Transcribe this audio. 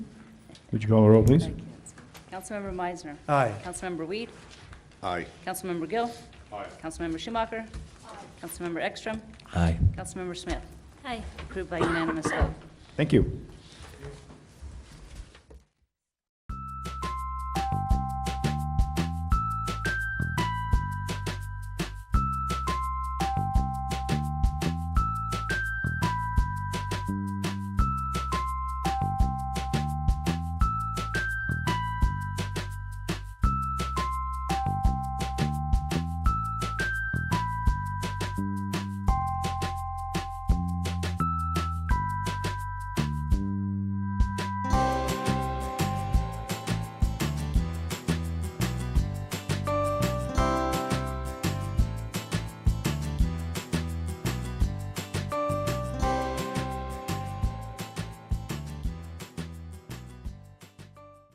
Would you call the roll, please? Councilmember Meisner. Aye. Councilmember Weed. Aye. Councilmember Gill. Aye. Councilmember Schumacher. Aye. Councilmember Ekstrom. Aye. Councilmember Smith. Aye. Approved by unanimous vote. Thank you.